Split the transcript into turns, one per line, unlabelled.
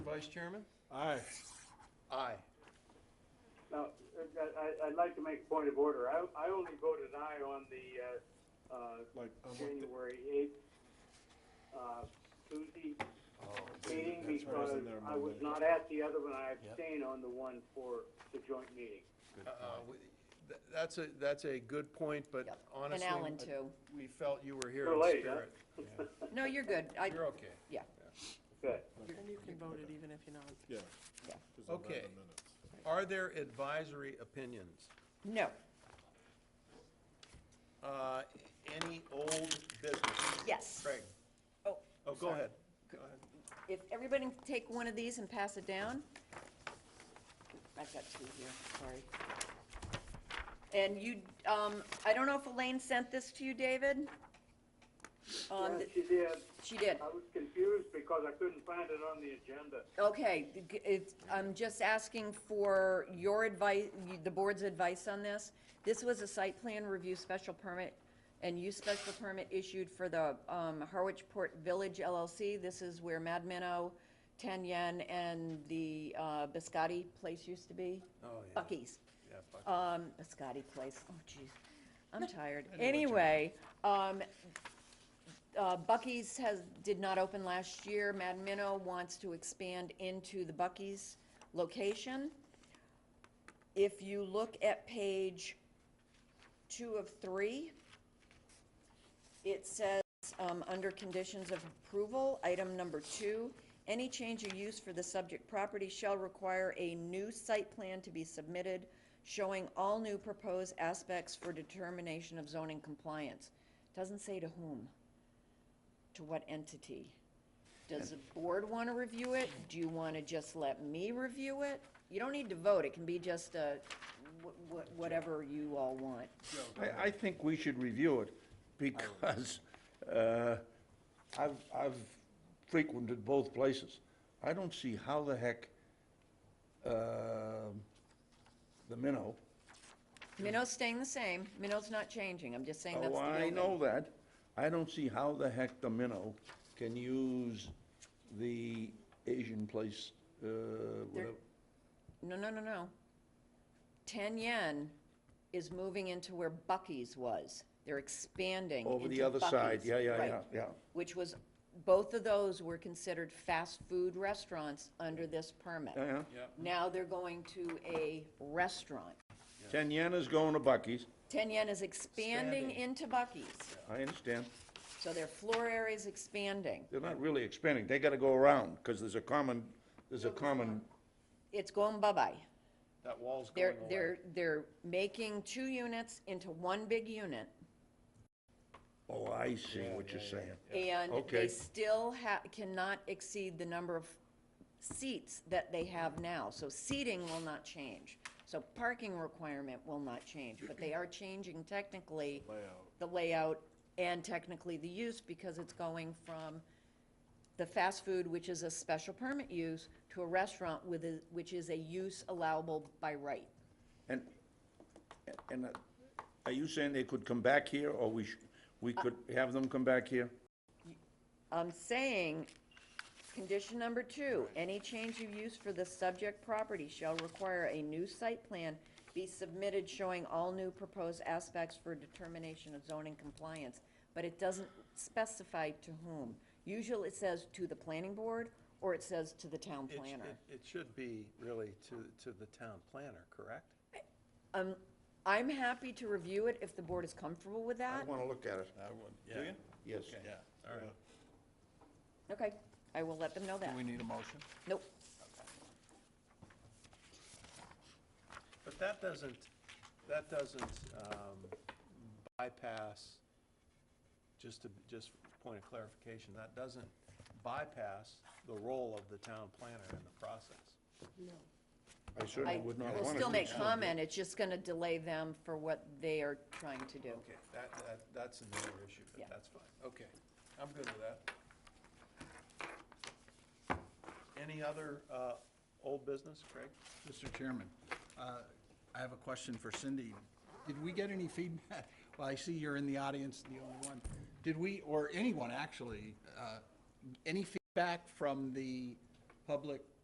Vice Chairman?
Aye.
Aye.
Now, I, I- I'd like to make a point of order. I, I only voted aye on the, uh, uh,
Like, I want the-
January eighth, uh, Tuesday meeting
That's right, Oh, I was
because
in there
I was
Monday.
not at the other one. I abstained on the one for the joint meeting.
Uh, That's a, that's a good point, but
Yep, and
honestly.
Alan,
I-
too.
We felt you were here
You're
in
late, huh?
spirit.
No, you're good. I,
You're okay.
yeah,
Good.
And you can vote it even if you're not.
Yeah.
yeah.
just amend the
Okay.
minutes.
Are there advisory opinions?
No,
Uh, Any old business?
yes.
Craig?
Oh,
Oh, go ahead. Go ahead.
if everybody can take one of these and pass it down. I've got two here, sorry. And you, um, I don't know if Elaine sent this to you, David? Um,
Yeah,
th-
she did.
she did.
I was confused because I couldn't find it on the agenda.
Okay, it's, I'm just asking for your advice, the board's advice on this. This was a site plan review special permit and use special permit issued for the um, Harwich Port Village LLC. This is where Mad Minnow, Ten Yen, and the uh, Biscotti place used to be.
Oh, yeah.
Bucky's.
Yeah, Buc-
Um, Biscotti place, oh jeez, I'm tired. Anyway, um, uh, Bucky's has, did not open last year. Mad Minnow wants to expand into the Bucky's location. If you look at page two of three, it says, um, under conditions of approval, item number two, any change of use for the subject property shall require a new site plan to be submitted showing all new proposed aspects for determination of zoning compliance. Doesn't say to whom, to what entity. Does the board want to review it? Do you want to just let me review it? You don't need to vote, it can be just a, wh- wh- whatever you all want.
I, I think we should review it, because uh, I've, I've frequented both places. I don't see how the heck um, the minnow,
Minnow's staying the same, Minnow's not changing, I'm just saying that's
oh,
the
I
building.
know that, I don't see how the heck the minnow can use the Asian place, uh, whatever.
No, no, no, no. Ten Yen is moving into where Bucky's was. They're expanding
Over the
into
other side.
Buc-ee's.
Yeah, yeah,
Right.
yeah, yeah.
Which was, both of those were considered fast food restaurants under this permit.
Yeah, yeah.
Now they're going to a restaurant.
Ten yen is going to Bucky's,
Ten Yen is expanding into Bucky's,
I understand.
so their floor area is expanding.
They're not really expanding, they gotta go around, because there's a common, there's a common
It's going bye-bye.
That wall's going
They're,
away.
they're, they're making two units into one big unit.
Oh, I see what you're saying.
And they
Okay.
still ha- cannot exceed the number of seats that they have now. So seating will not change. So parking requirement will not change, but they are changing technically the layout and technically the use because it's going from the fast food, which is a special permit use, to a restaurant with a, which is a use allowable by right.
And, and uh, are you saying they could come back here, or we, sh- we could have them come back here?
I'm Um, saying, condition number two, any change of use for the subject property shall require a new site plan be submitted showing all new proposed aspects for determination of zoning compliance, but it doesn't specify to whom. Usually it says to the planning board, or it says to the town
It sh-
planner.
it- It should be really to, to the town planner, correct?
Um, I'm happy to review it if the board is comfortable with
I
that.
wanna look at it. I would.
Do you?
Yes.
Yeah, all right.
Okay, I will let them know that.
We need a motion?
Nope,
But that doesn't, that doesn't um, bypass, just to, just point of clarification, that doesn't bypass the role of the town planner in the process.
I certainly
I
would not
will
wanna
still
do
make
so.
comment, it's just gonna delay them for what they are trying to do.
Okay, that, that, that's another issue,
Yeah.
but that's fine. Okay, I'm good with that. Any other uh, old business, Craig?
Mr. Chairman, uh, I have a question for Cindy. Did we get any feedback? Well, I see you're in the audience, the only one. Did we, or anyone actually, uh, any feedback from the public